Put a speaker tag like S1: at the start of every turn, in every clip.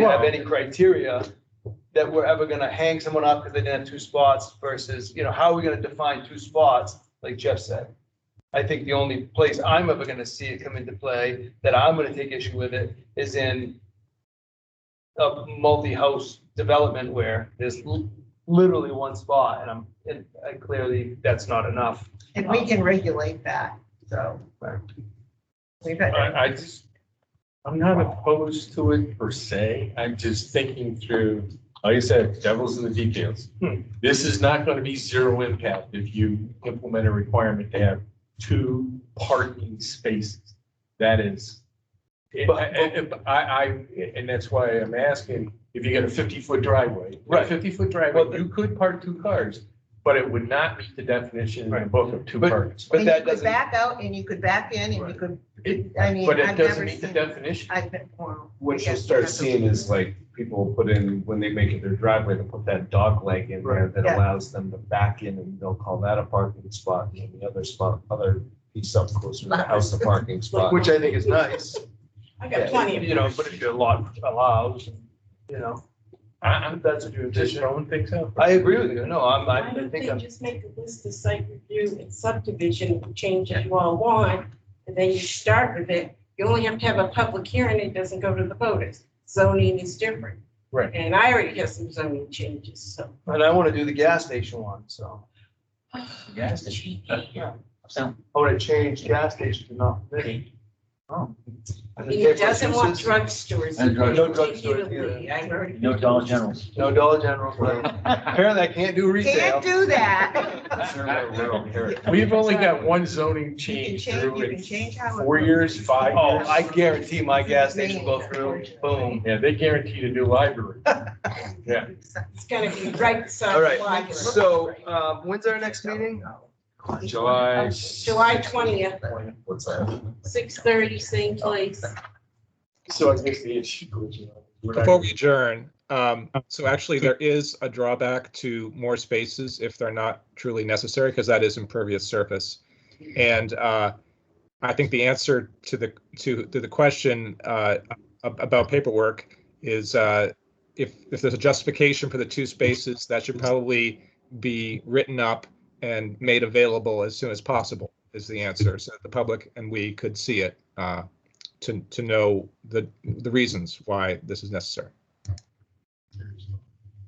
S1: didn't have any criteria that we're ever gonna hang someone up because they didn't have two spots versus, you know, how are we gonna define two spots, like Jeff said? I think the only place I'm ever gonna see it come into play, that I'm gonna take issue with it, is in a multi-house development where there's l- literally one spot, and I'm, and I clearly, that's not enough.
S2: And we can regulate that, so.
S1: Right.
S2: We've had,
S3: I, I just, I'm not opposed to it per se. I'm just thinking through, like I said, devil's in the details.
S1: Hmm.
S3: This is not going to be zero impact if you implement a requirement to have two parking spaces. That is, I,
S1: But-
S3: I- I, and that's why I'm asking, if you get a fifty-foot driveway.
S1: Right.
S3: Fifty-foot
S1: Well,
S3: driveway, you could park two cars, but it would not meet the definition in the
S1: Right.
S3: book of two
S1: But-
S3: parking.
S1: But
S2: and
S1: that
S2: you could
S1: doesn't-
S2: back out and you could back in and you could,
S3: It-
S2: I mean,
S3: But
S2: I've
S3: it
S2: never
S3: doesn't meet the
S2: seen-
S3: definition.
S2: I've been. well,
S4: What you'll
S2: yes,
S4: start
S2: that's a-
S4: seeing is like people will put in, when they make it their driveway, they'll put that dog leg in there that
S2: Yeah.
S4: allows them to back in and they'll call that a parking spot and the other spot, other piece up closer to the house, a parking spot.
S1: Which I think is nice.
S5: I got plenty of.
S1: You know, but if your lot allows, you know,
S3: I, am
S1: that's what you
S3: just
S1: envision.
S3: throwing things out.
S1: I agree with you. No, I'm,
S5: Why
S1: I- I
S5: don't they
S1: think I'm.
S5: just make a list of site review and subdivision changes you all want? And then you start with it. You only have to have a public hearing. It doesn't go to the voters. Zoning is different.
S3: Right.
S5: And I already have some zoning changes, so.
S1: And I want to do the gas station one, so.
S6: Yes. So,
S1: I want to change gas station to not. permitted.
S6: oh,
S1: And the
S5: He
S1: different
S5: doesn't want
S1: uses,
S5: drugstores.
S6: And drug-
S1: No drugstores
S5: Immediately, I already.
S6: no Dollar Generals.
S1: No Dollar General. but Apparently I can't do retail.
S2: Can't do that.
S3: We've only got one zoning
S2: You can
S3: change
S2: change-
S3: through
S2: you can
S3: in
S2: change how it
S3: four
S2: looks.
S3: years, five
S1: Oh,
S3: years.
S1: I guarantee my gas station will go through, boom.
S3: Yeah, they guaranteed a new library. Yeah.
S5: It's gonna be right beside.
S1: All
S5: the
S1: right,
S5: library.
S1: so, um, when's our next meeting?
S3: July.
S5: July twentieth,
S4: What's that?
S5: six thirty, same place.
S3: So I guess the issue. was, you know, we're not-
S7: Before we adjourn, um, so actually there is a drawback to more spaces if they're not truly necessary, because that is impervious surface. And, uh, I think the answer to the, to, to the question, uh, ab- about paperwork is, uh, if, if there's a justification for the two spaces, that should probably be written up and made available as soon as possible is the answer, so that the public and we could see it, uh, to, to know the, the reasons why this is necessary.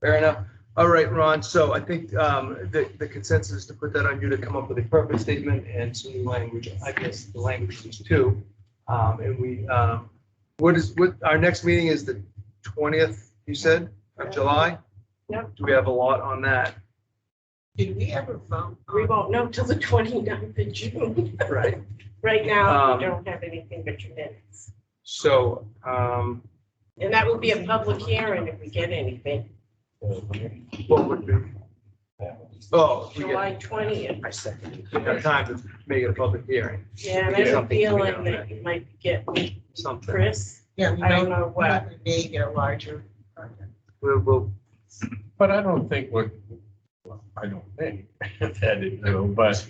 S1: Fair enough. All right, Ron, so I think, um, the, the consensus is to put that on you to come up with a purpose statement and some new language, I guess, the language is two. Um, and we, um, what is, what, our next meeting is the twentieth, you said, of July?
S5: Yep.
S1: Do we have a lot on that?
S2: Did we ever vote?
S5: We won't know till the 29th of June.
S1: Right.
S5: Right now,
S1: Um,
S5: we don't have anything but your minutes.
S1: So, um,
S5: And that would be a public hearing if we get anything,
S3: uh,
S1: what would be? Oh, we get,
S5: July twentieth.
S1: we have time to make it a public hearing,
S5: Yeah, and
S1: We
S5: I
S1: get
S5: have a
S1: something coming
S5: feeling
S1: out of
S5: that you might get
S1: something.
S5: Chris.
S2: Yeah, we
S5: I don't
S2: might,
S5: know
S2: we
S5: what.
S2: may get a larger.
S1: We'll, we'll,
S3: But I don't think what, well, I don't think that it will, but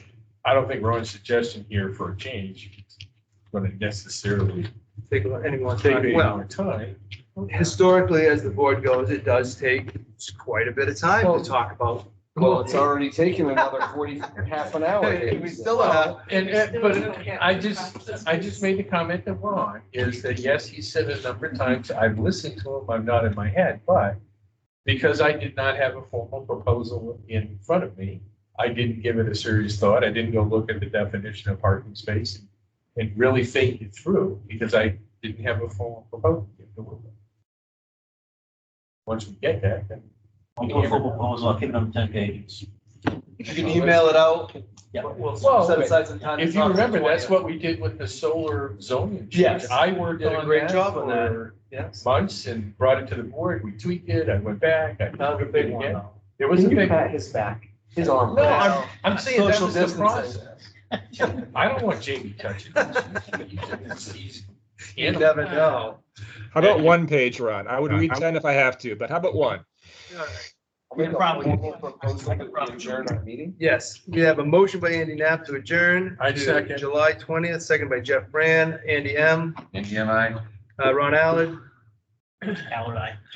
S3: I don't think Ron's suggestion here for a change is going to necessarily
S1: take anyone's
S3: take
S1: time.
S3: any
S1: Well,
S3: more time.
S1: historically, as the board goes, it does take quite a bit of time to talk about.
S4: Well, it's already taken another forty, half an hour. uh,
S1: We still have,
S3: And, and- but I just, I just made the comment that Ron is that, yes, he said it a number of times, I've listened to him, I'm not in my head, but because I did not have a formal proposal in front of me, I didn't give it a serious thought, I didn't go look at the definition of parking space and- and really think it through, because I didn't have a formal proposal. to give to work with. Once we get that, then.
S6: I'll do a full proposal, I'll keep it on ten pages.
S1: you can email it out.
S6: Yeah.
S1: We'll
S3: Well,
S1: set aside some time. to
S3: If you
S1: talk to
S3: remember, that's
S1: 20th.
S3: what we did with the solar zoning. change.
S1: Yes.
S3: I worked
S1: Did a
S3: on
S1: great
S3: that
S1: job on that.
S3: for
S1: Yes.
S3: months and brought it to the board. We tweaked it. I went back. I
S1: That was a big one,
S3: again.
S1: though.
S3: There was a big.
S4: his back, his arm.
S3: No, I'm, I'm saying that
S1: Social
S3: was the
S1: distancing.
S3: process. I don't want Jamie touching. this. He's-
S1: You never know.
S7: How about one page, Ron? I would read 10 if I have to, but how about one?
S6: We can probably- I can probably-
S4: Adjourn our meeting?
S1: Yes, we have a motion by Andy Knapp to adjourn.
S3: I
S1: to
S3: second.
S1: July twentieth, second by Jeff Brand, Andy M,
S6: And I.
S1: uh, Ron Allard,
S6: Howard, I.